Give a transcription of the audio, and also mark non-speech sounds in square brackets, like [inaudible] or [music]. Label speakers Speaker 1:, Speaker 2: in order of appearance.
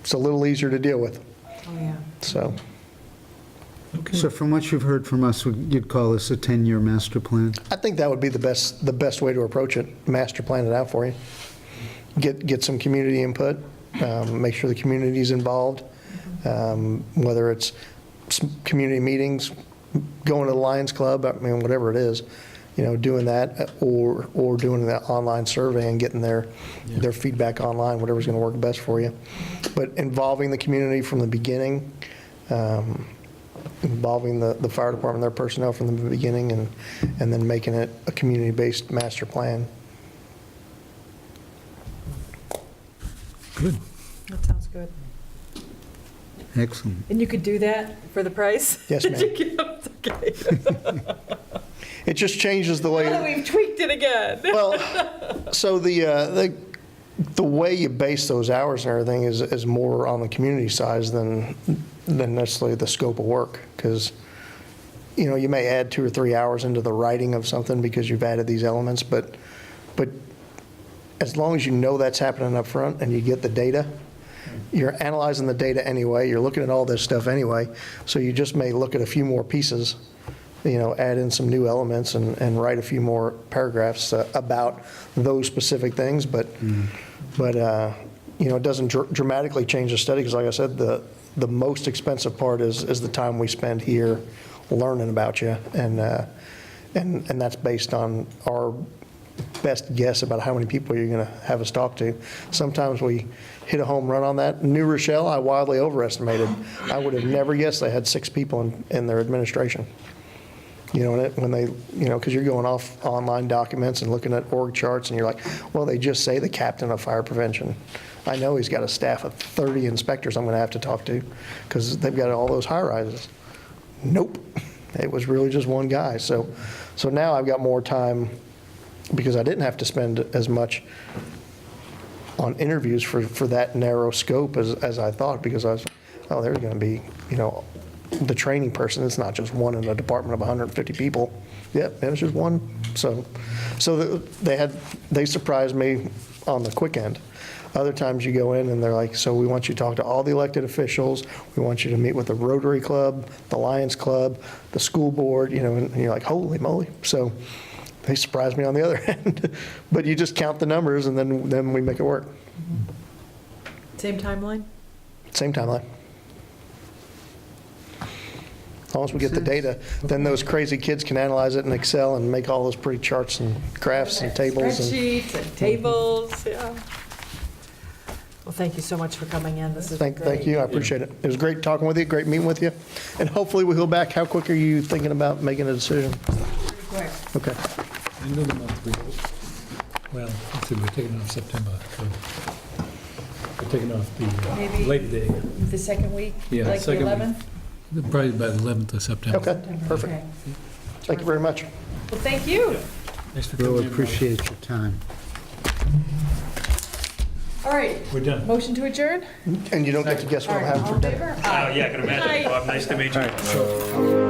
Speaker 1: it's a little easier to deal with,
Speaker 2: Oh, yeah.
Speaker 1: so.
Speaker 3: Okay.
Speaker 4: So from what you've heard from us, would- you'd call this a 10-year master plan?
Speaker 1: I think that would be the best, the best way to approach it, master plan it out for you. Get, get some community input, um, make sure the community's involved, um, whether it's some community meetings, going to the Lions Club, I mean, whatever it is, you know, doing that, uh, or, or doing that online survey and getting their, their feedback online, whatever's going to work best for you. But involving the community from the beginning, um, involving the, the fire department, their personnel from the beginning, and, and then making it a community-based master plan.
Speaker 3: Good,
Speaker 2: That sounds good.
Speaker 4: Excellent.
Speaker 2: And you could do that for the price?
Speaker 1: Yes, ma'am.
Speaker 2: [laughs] Okay.
Speaker 1: It just changes the
Speaker 2: Now that
Speaker 1: way,
Speaker 2: we've tweaked it again.
Speaker 1: well, so the, uh, the, the way you base those hours and everything is, is more on the community size than, than necessarily the scope of work, because, you know, you may add two or three hours into the writing of something because you've added these elements, but, but as long as you know that's happening up front and you get the data, you're analyzing the data anyway, you're looking at all this stuff anyway, so you just may look at a few more pieces, you know, add in some new elements and, and write a few more paragraphs uh, about those specific things, but, but, uh, you know, it doesn't dr- dramatically change the study, because like I said, the, the most expensive part is, is the time we spend here learning about you, and, uh, and, and that's based on our best guess about how many people you're going to have us talk to. Sometimes we hit a home run on that. New Rochelle, I wildly overestimated. I would have never guessed they had six people in, in their administration. You know, and it- when they, you know, because you're going off online documents and looking at org charts, and you're like, well, they just say the captain of fire prevention. I know he's got a staff of 30 inspectors I'm going to have to talk to, because they've got all those high rises. Nope. It was really just one guy. So, so now I've got more time because I didn't have to spend as much on interviews for, for that narrow scope as, as I thought because I was, oh, there's going to be, you know, the training person. It's not just one in a department of 150 people. Yep, and it's just one. So, so th- they had, they surprised me on the quick end. Other times you go in and they're like, so we want you to talk to all the elected officials. We want you to meet with the Rotary Club, the Lions Club, the school board, you know, and you're like, holy moly. So they surprised me on the other [laughs] end. But you just count the numbers and then, then we make it work.
Speaker 2: Same timeline?
Speaker 1: Same timeline. As long as we get the data, then those crazy kids can analyze it in Excel and make all those pretty charts and graphs and Mm-hmm. tables and
Speaker 2: Spreadsheets and tables, yeah. Well, thank you so much for coming in. This is great.
Speaker 1: thank, thank you, I appreciate it. It was great talking with you, great meeting with you. And hopefully we will back, how quick are you thinking about making a decision?
Speaker 2: Pretty quick.
Speaker 1: Okay,
Speaker 3: end of the month, we hope. Well, let's see, we're taking off September, so we're taking off the
Speaker 2: Maybe-
Speaker 3: uh, Labor Day,
Speaker 2: The second week?
Speaker 3: Yeah,
Speaker 2: Like the
Speaker 3: second week.
Speaker 2: 11th?
Speaker 3: probably by the 11th of September.
Speaker 1: okay, perfect.
Speaker 2: Okay.
Speaker 1: Thank you very much.
Speaker 2: Well, thank you.
Speaker 3: Thanks for coming in.
Speaker 4: Really
Speaker 3: Mike.
Speaker 4: appreciate your time.
Speaker 2: All right,
Speaker 3: We're done.
Speaker 2: motion to adjourn?
Speaker 1: And you don't get to guess
Speaker 2: All
Speaker 1: what I'm
Speaker 2: right,
Speaker 1: having
Speaker 2: all
Speaker 1: for
Speaker 2: in
Speaker 1: dinner.
Speaker 2: favor?
Speaker 5: Oh, yeah, I can imagine.
Speaker 2: Hi.
Speaker 5: Bob, nice to meet you.
Speaker 3: All right, so